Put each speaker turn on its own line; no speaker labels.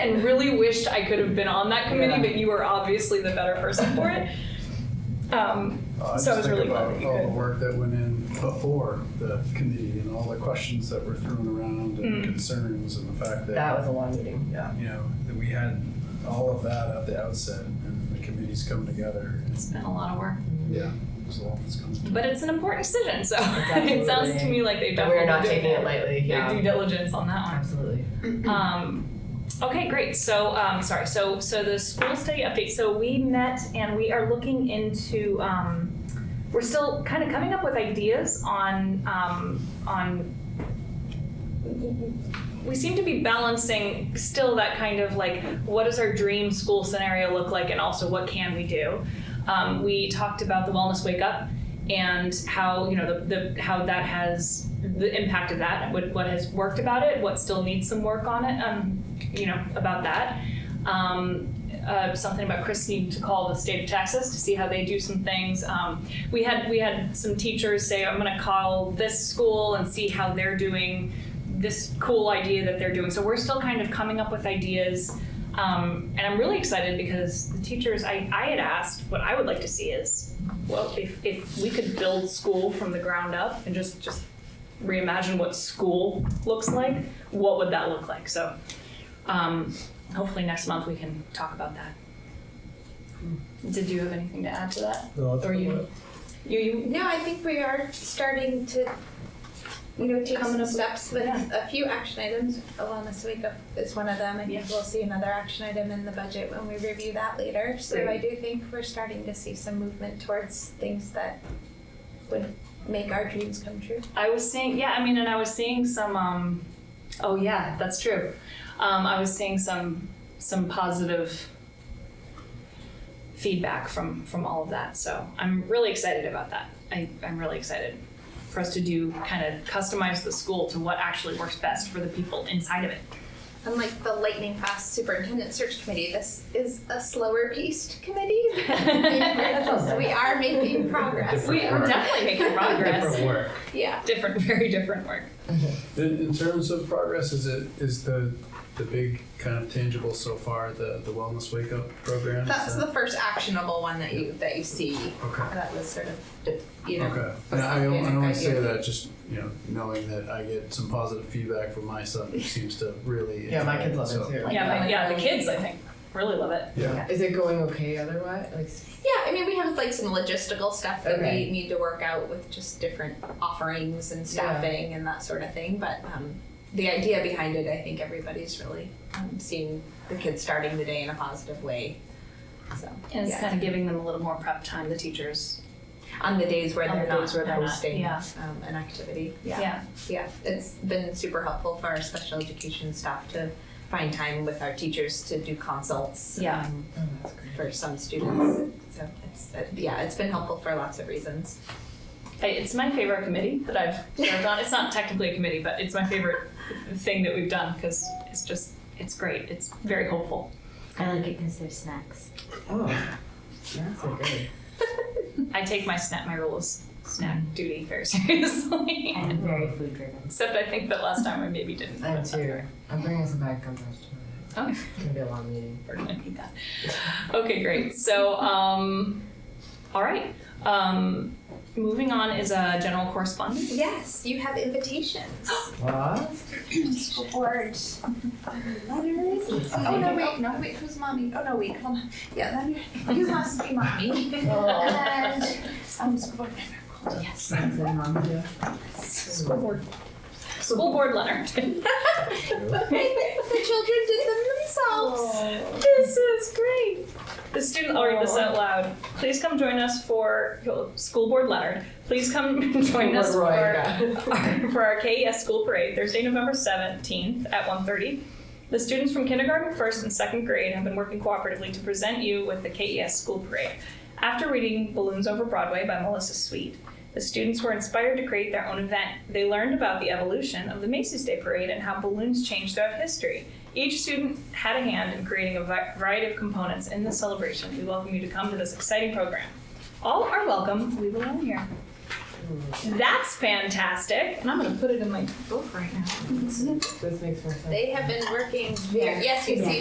and really wished I could have been on that committee,
Yeah.
but you were obviously the better person for it. Um,
Uh, I
so I was
just
really
think
glad that
about
you
all the
could.
work that went in before the committee and all the questions that were thrown around
Mm.
and concerns and the fact
That
that,
was a long meeting, yeah.
you know, that we had all of that at the outset and the committee's come together.
It's been a lot of work,
Yeah. There's a lot that's come.
but it's an important decision, so it
Absolutely.
sounds to me like they
But
definitely
we're not
did
taking it
their-
lightly,
their
yeah.
due diligence on that one.
Absolutely.
Um, okay, great. So, um, sorry. So, so the school study update. So we met and we are looking into. Um, we're still kind of coming up with ideas on um, on. We seem to be balancing still that kind of like what does our dream school scenario look like, and also what can we do. Um, we talked about the wellness wake up and how you know the, the how that has the impact of that what, what has worked about it what still needs some work on it um, you know about that um, uh, something about Chris needing to call the state of Texas to see how they do some things. Um, we had we had some teachers say, "I'm going to call this school and see how they're doing this cool idea that they're doing." So we're still kind of coming up with ideas, um, and I'm really excited because the teachers I, I had asked what I would like to see is well, if, if we could build school from the ground up and just, just reimagine what school looks like, what would that look like? So um, hopefully next month we can talk about that. Did you have anything to add to that? Or you, you, you
No, I think we are starting to, you know, take
Coming
some
up with-
steps with
yeah.
a few action items. Wellness Week up is one of them. I
Yeah.
think we'll see another action item in the budget when we review that later. So I
Great.
do think we're starting to see some movement towards things that would make our dreams come true.
I was seeing, yeah, I mean, and I was seeing some. Um, oh yeah, that's true. Um, I was seeing some some positive feedback from from all of that. So I'm really excited about that. I, I'm really excited for us to do kind of customize the school to what actually works best for the people inside of it.
Unlike the lightning fast superintendent search committee, this is a slower paced committee. So we are making progress.
we are definitely making progress.
Different work.
Yeah.
different, very different work.
In, in terms of progress, is it, is the, the big kind of tangible so far, the, the wellness wake up program? Is
That's the
that-
first actionable one that you that you see.
Okay.
That was sort of you know.
Okay, and
that's
I, I
the basic
only say
idea.
that just, you know, knowing that I get some positive feedback from my son, who seems to really.
Yeah, my
enjoy
kids love it
so-
too.
Yeah, but, yeah, the kids I think really love it.
Yeah,
Is it going okay otherwise? Like, s-
Yeah, I mean we have like some logistical stuff that
Okay.
we need to work out with just different offerings and staffing and that sort of thing. But um, the idea behind it, I think everybody's really um, seeing the kids starting the day in a positive way. So
And it's
yeah.
kind of giving them a little more prep time. The teachers
on the days where
On
they're
the
not
days where they're not,
hosting
yeah.
um, an activity.
Yeah.
Yeah, it's been super helpful for our special education staff to find time with our teachers to do consults.
Yeah.
um,
oh, that's great.
For some students, so it's, uh, yeah, it's been helpful for lots of reasons.
I- It's my favorite committee that I've served on. It's not technically a committee, but it's my favorite thing that we've done because it's just, it's great. It's very hopeful.
I like it because there's snacks.
Oh, that's so good.
I take my snack, my rule of s- snack duty very seriously.
I'm very food driven.
Except I think that last time I maybe didn't.
I am too. I'm bringing some back compost tomorrow.
Oh,
It's gonna be a long meeting.
we're gonna need that. Okay, great. So, um, all right. Um, moving on is a general correspondence.
Yes, you have invitations.
What?
Board letters. Oh, no, wait, no, wait, who's mommy? Oh, no, wait, hold on. Yeah, then you- you must be mommy. And, um, school board member. Coulter.
Yes.
Is it mom too?
School board. School board Leonard.
The children did them themselves.
This is great. The student, I'll read this out loud. Please come join us for, School Board Leonard, please come join us for
Roy,
our,
yeah.
for our KES school parade, Thursday, November seventeenth at 1:30. The students from kindergarten, first, and second grade have been working cooperatively to present you with the KES school parade. After reading Balloons Over Broadway by Melissa Sweet, the students were inspired to create their own event. They learned about the evolution of the Macy's Day Parade and how balloons change throughout history. Each student had a hand in creating a vi- variety of components in this celebration. We welcome you to come to this exciting program. All are welcome. We belong here. That's fantastic. And I'm going to put it in my book right now.
This makes more sense.
They have been working very, yes, you see